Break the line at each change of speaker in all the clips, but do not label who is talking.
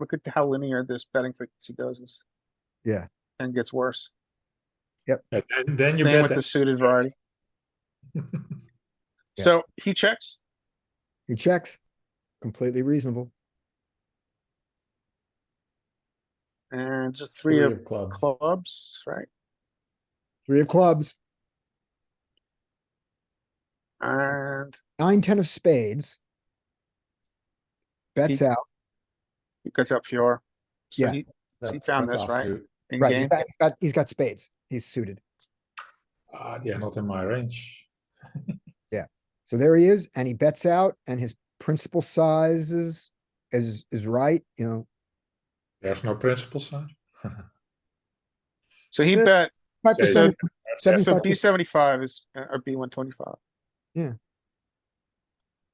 look at how linear this betting frequency goes is.
Yeah.
And gets worse.
And then- then you
Same
bet
with the
that.
suited variety.
Yeah.
So he checks,
He checks. Completely reasonable.
and just three of
clubs.
clubs, right?
Three of clubs,
And
nine, ten of spades. Bets
He-
out,
he cuts out pure. So
Yeah.
he- he
That's-
found
that's
this, right?
offsuit.
in
right?
game,
He's got, he's got- he's got spades. He's suited.
Ah, yeah, not in my range.
So there he is, and he bets out, and his principal size is, is, is right, you know.
There's no principal size.
So he bet,
Five
So-
percent,
so
seventy-five,
B seventy-five is, uh, or B one twenty-five.
Yeah.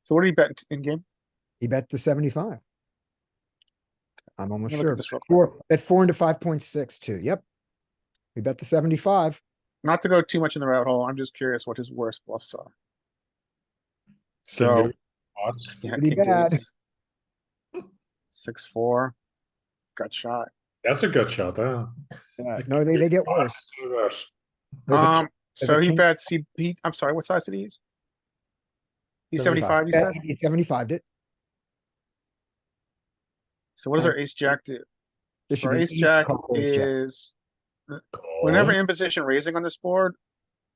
So what do you bet in game?
he bet the seventy-five. I'm almost
Let me look at
sure.
this real quick.
Four, at four into five point six two, yep. We bet the seventy-five.
Not to go too much in the rabbit hole, I'm just curious what his worst bluffs are.
Can
So.
do odds.
yeah,
Pretty
king deuce.
bad.
Six, four. Got shot.
That's a good shot, huh?
Yeah, no, they, they get
Ah,
worse.
it's Worse.
There's a
Um,
there's
so
a
he
king-
bets, he, he, I'm sorry, what size did he use? He seventy-five, you said?
Seventy-five did.
So what does our ace jack do?
This should
Our
be
ace
easy
jack
call for ace jack.
is, whenever
Call.
in position raising on this board,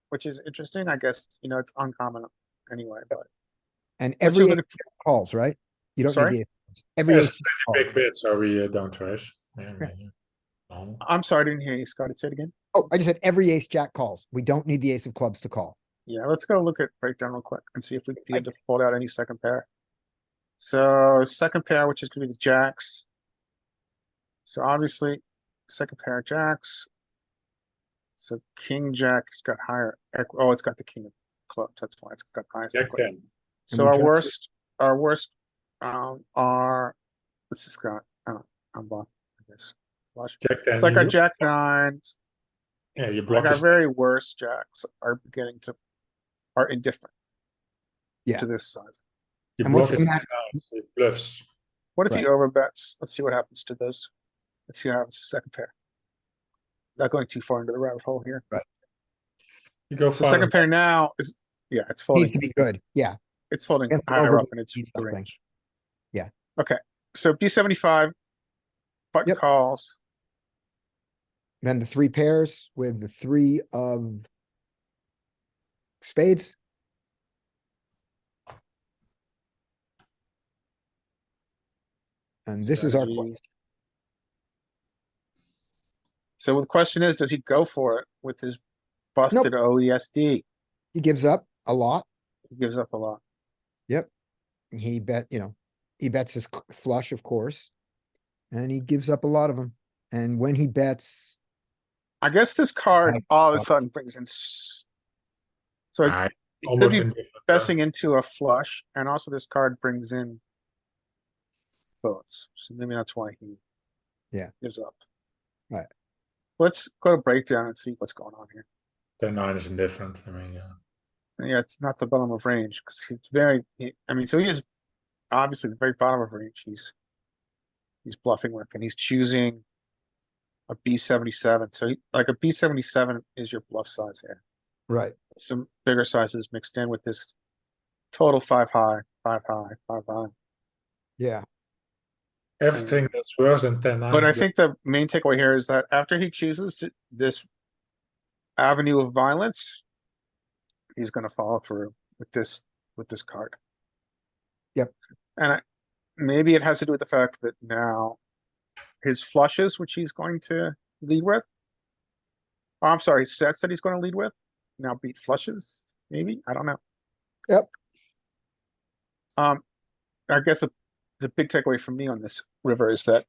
which is interesting, I guess, you know, it's uncommon anyway, but.
And
let's just
every
look
eight
at-
calls, right? You don't need
Sorry?
the. eight calls. Every
Yes,
ace jack call.
Big bets are we uh, don't raise. Yeah, maybe. No.
I'm sorry, I didn't hear you, Scott. Say it again.
Oh, I just said every ace jack calls. We don't need the ace of clubs to call.
Yeah, let's go look at breakdown real quick and see if we can be able to fold out any second pair. So second pair, which is gonna be the jacks. So obviously, second pair of jacks. So king jack has got higher, equ- oh, it's got the king of clubs, that's why it's got highest.
Jack
equity.
ten.
So
we
our
jack-
worst, our worst, um, are, this is got, I don't, uh, I'm blocked, I guess. Flush.
Jack ten.
It's like our
you-
jack nines,
Yeah, you block
like our
his
very worst jacks are beginning to, are indifferent.
Yeah.
To this size.
You
And what's
block it
the matter?
out, it bluffs.
What if he overbets? Let's see what happens to those. Let's see what happens to second pair. Not going too far into the rabbit hole here.
You go
So
five
second
and-
pair now is, yeah, it's
Needs to
folding,
be good. Yeah,
it's folding
Can't
higher
over-
up in its
needs something.
range.
Yeah.
Okay, so B seventy-five. Button
Yep.
calls,
then the three pairs with the three of. Spades, and this is our,
Strategy.
question.
so the question is, does he go for it with his busted OESD?
he gives up a lot.
He gives up a lot.
He bet, you know, he bets his c- flush, of course. And he gives up a lot of them. And when he bets,
I guess this card
Right.
all of a sudden brings in. s- So it
Ah,
it could
almost
be
indifferent, uh,
Besting into a flush, and also this card brings in boats, so maybe that's why he
Yeah.
gives up.
Right.
Let's go to breakdown and see what's going on here.
Ten nine is indifferent, I mean, yeah.
And Yeah, it's not the bottom of range, because he's very, he- I mean, so he is obviously the very bottom of range, he's he's bluffing with, and he's choosing a B seventy-seven, so he- like a B seventy-seven is your bluff size here.
right,
some bigger sizes mixed in with this total five high, five high, five high.
yeah,
Everything that's worse than ten nine.
Mm. But I
is
think the main takeaway here is that after he chooses to, this avenue of violence, he's gonna follow through with this, with this card.
Yep.
And I, maybe it has to do with the fact that now his flushes, which he's going to lead with, oh, I'm sorry, his sets that he's gonna lead with, now beat flushes, maybe? I don't know.
Yep.
Um, I guess the, the big takeaway for me on this river is that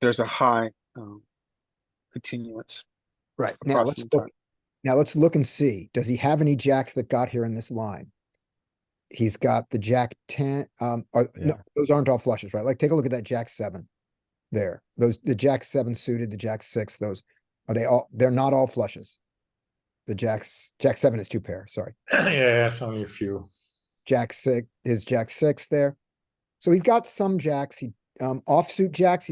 there's a high um, continuance
right. Now
across
let's
the
look-
entire.
Now let's look and see, does he have any jacks that got here in this line? He's got the jack ten, um, are, no,
Yeah.
those aren't all flushes, right? Like, take a look at that jack seven. There, those, the jack seven suited, the jack six, those, are they all, they're not all flushes. The jacks, jack seven is two pair, sorry.
Yeah, yeah, it's only a few.
Jack six, his jack six there. So he's got some jacks he um, offsuit jacks,